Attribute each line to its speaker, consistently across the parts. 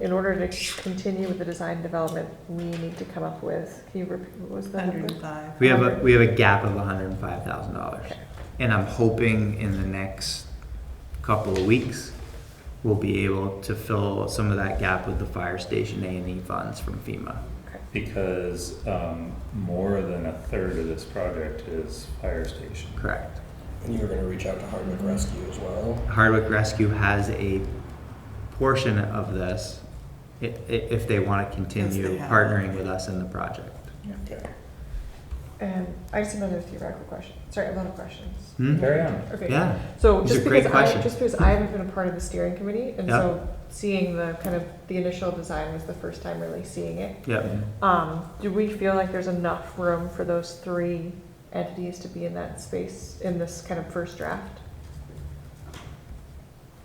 Speaker 1: in order to continue with the design development, we need to come up with, can you repeat, what was the number?
Speaker 2: 105.
Speaker 3: We have a, we have a gap of hundred and five thousand dollars.
Speaker 1: Okay.
Speaker 3: And I'm hoping in the next couple of weeks, we'll be able to fill some of that gap with the fire station A and E funds from FEMA.
Speaker 4: Because um, more than a third of this project is fire station.
Speaker 3: Correct.
Speaker 5: And you were gonna reach out to Hardwick Rescue as well.
Speaker 3: Hardwick Rescue has a portion of this i- i- if they want to continue
Speaker 2: have.
Speaker 3: partnering with us in the project.
Speaker 5: Okay.
Speaker 1: And I just have another theoretical question, sorry, a lot of questions.
Speaker 3: Hmm?
Speaker 4: Carry on.
Speaker 1: Okay.
Speaker 3: Yeah.
Speaker 1: So
Speaker 3: These
Speaker 1: just
Speaker 3: are great
Speaker 1: because I,
Speaker 3: questions.
Speaker 1: just because I haven't been a part of the steering committee, and
Speaker 3: Yeah.
Speaker 1: so seeing the kind of, the initial design was the first time really seeing it.
Speaker 3: Yep.
Speaker 1: Um, do we feel like there's enough room for those three entities to be in that space in this kind of first draft?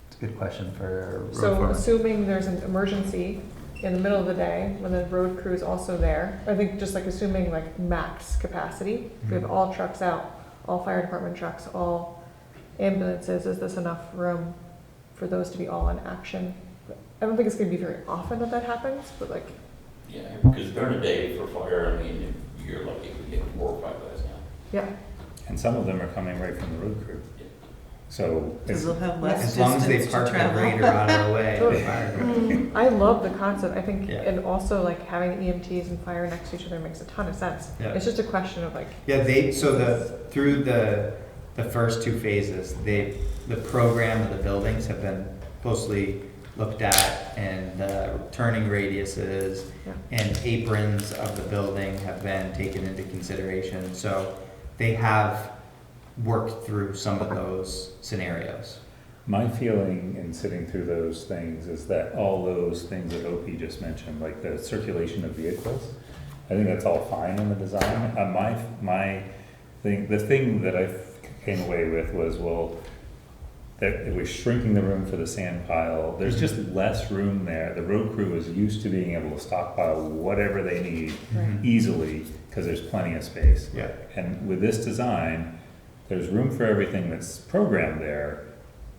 Speaker 3: It's a good question for road
Speaker 1: So
Speaker 3: foreman.
Speaker 1: assuming there's an emergency in the middle of the day, when the road crew is also there, I think just like assuming like max capacity, we have
Speaker 3: Mhm.
Speaker 1: all trucks out, all fire department trucks, all ambulances, is this enough room for those to be all in action? I don't think it's gonna be very often that that happens, but like,
Speaker 6: Yeah, because during the day for fire, I mean, you're lucky if you get four or five guys now.
Speaker 1: yeah,
Speaker 4: And some of them are coming right from the road crew. So
Speaker 2: Because
Speaker 4: it's,
Speaker 2: they'll have less
Speaker 3: As long as they
Speaker 2: distance to
Speaker 3: park the grader
Speaker 2: travel.
Speaker 3: out of the way.
Speaker 1: Sure.
Speaker 3: the fire truck-
Speaker 1: I love the concept, I think,
Speaker 3: Yeah.
Speaker 1: and also like having EMTs and fire next to each other makes a ton of sense.
Speaker 3: Yeah.
Speaker 1: It's just a question of like,
Speaker 3: Yeah, they, so the, through the, the first two phases, they, the program of the buildings have been closely looked at and uh, turning radiuses
Speaker 1: Yeah.
Speaker 3: and aprons of the building have been taken into consideration. So they have worked through some of those scenarios.
Speaker 4: my feeling in sitting through those things is that all those things that OP just mentioned, like the circulation of vehicles, I think that's all fine in the design. Uh, my, my thing, the thing that I came away with was, well, that it was shrinking the room for the sand pile. There's just less room there. The road crew is used to being able to stockpile whatever they need
Speaker 1: Right.
Speaker 4: easily because there's plenty of space.
Speaker 3: Yeah.
Speaker 4: And with this design, there's room for everything that's programmed there,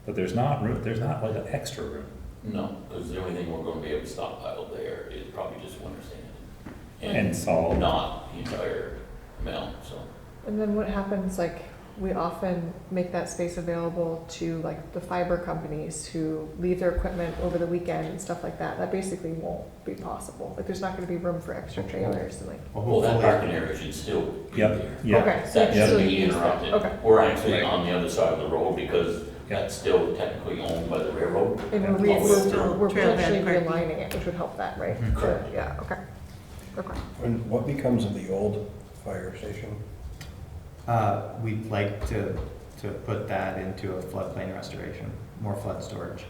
Speaker 4: but there's not room, there's not like an extra room.
Speaker 6: No, because the only thing we're gonna be able to stockpile there is probably just winter sand.
Speaker 4: And salt.
Speaker 6: Not the entire amount, so.
Speaker 1: And then what happens, like, we often make that space available to like the fiber companies who leave their equipment over the weekend and stuff like that. That basically won't be possible. Like, there's not gonna be room for extra trailers and like,
Speaker 6: Well, that parking area should still be
Speaker 4: Yep,
Speaker 6: there.
Speaker 4: yeah.
Speaker 1: okay, so
Speaker 6: That
Speaker 1: you still
Speaker 6: shouldn't be
Speaker 1: use that.
Speaker 6: interrupted.
Speaker 1: Okay.
Speaker 6: We're actually
Speaker 4: Right.
Speaker 6: on the other side of the road because
Speaker 4: Yeah.
Speaker 6: that's still technically owned by the railroad.
Speaker 1: And we're,
Speaker 6: Well, it's
Speaker 1: re-
Speaker 2: still
Speaker 1: we're, we're
Speaker 2: trailhead
Speaker 1: potentially
Speaker 2: parking.
Speaker 1: realigning it, which would help that, right?
Speaker 3: Mhm.
Speaker 6: Correct.
Speaker 1: Yeah, okay, okay.
Speaker 5: And what becomes of the old fire station?
Speaker 3: Uh, we'd like to, to put that into a floodplain restoration, more flood storage.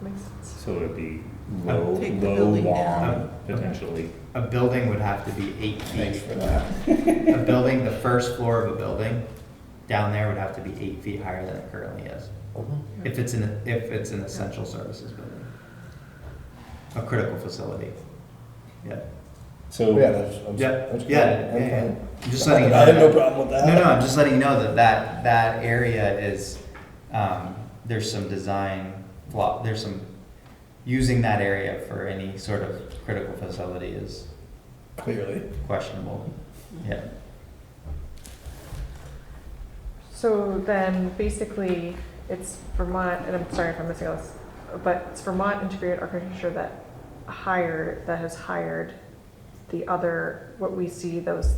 Speaker 1: Makes sense.
Speaker 4: So it'd be low,
Speaker 2: Take the
Speaker 4: low
Speaker 2: building down.
Speaker 4: lawn, potentially.
Speaker 3: A building would have to be eight feet
Speaker 5: Thanks for that.
Speaker 3: A building, the first floor of a building, down there would have to be eight feet higher than it currently is. If it's an, if it's an essential services building. A critical facility. Yeah.
Speaker 4: So.
Speaker 5: Yeah, that's, that's.
Speaker 3: Yeah,
Speaker 5: that's
Speaker 3: yeah,
Speaker 5: good.
Speaker 3: yeah,
Speaker 5: I'm
Speaker 3: yeah.
Speaker 5: fine.
Speaker 3: I'm just letting you know.
Speaker 5: I have no
Speaker 3: that-
Speaker 5: problem with that.
Speaker 3: No, no, I'm just letting you know that that, that area is, um, there's some design flaw, there's some, using that area for any sort of critical facility is
Speaker 5: Clearly.
Speaker 3: questionable. Yeah.
Speaker 1: So then, basically, it's Vermont, and I'm sorry if I'm missing all this, but it's Vermont Integrated Architecture that hired, that has hired the other, what we see, those,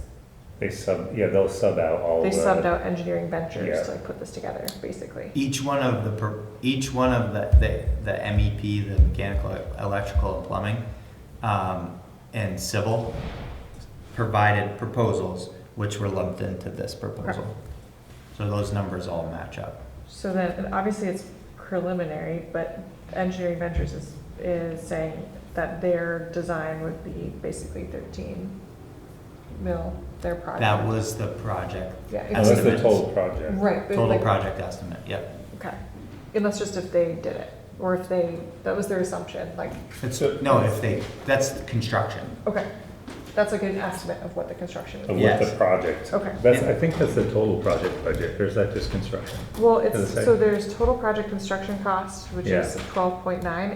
Speaker 4: They sub, yeah, they'll sub out all
Speaker 1: they
Speaker 4: the.
Speaker 1: subbed out engineering ventures to
Speaker 4: yeah.
Speaker 1: like put this together, basically.
Speaker 3: Each one of the, pro- each one of the, the, the MEP, the mechanical, electrical, and plumbing, um, and civil provided proposals, which were lumped into this proposal. So those numbers all match up.
Speaker 1: So then, and obviously it's preliminary, but engineering ventures is, is saying that their design would be basically thirteen mil, their project.
Speaker 3: That was the project,
Speaker 1: Yeah.
Speaker 4: Oh, that's the
Speaker 3: Estimates.
Speaker 4: total project.
Speaker 1: Right. but
Speaker 3: total
Speaker 1: like-
Speaker 3: project estimate, yep.
Speaker 1: Okay, and that's just if they did it, or if they, that was their assumption, like,
Speaker 3: It's, no, if they, that's the construction.
Speaker 1: okay, that's like an estimate of what the construction
Speaker 4: Of
Speaker 1: would
Speaker 4: what
Speaker 3: Yes.
Speaker 4: the project.
Speaker 1: Okay.
Speaker 4: That's, I think that's the total project budget, or is that just construction?
Speaker 1: be. Well,
Speaker 4: For the
Speaker 1: it's,
Speaker 4: site.
Speaker 1: so there's total project construction cost, which is
Speaker 4: Yeah.
Speaker 1: twelve point nine,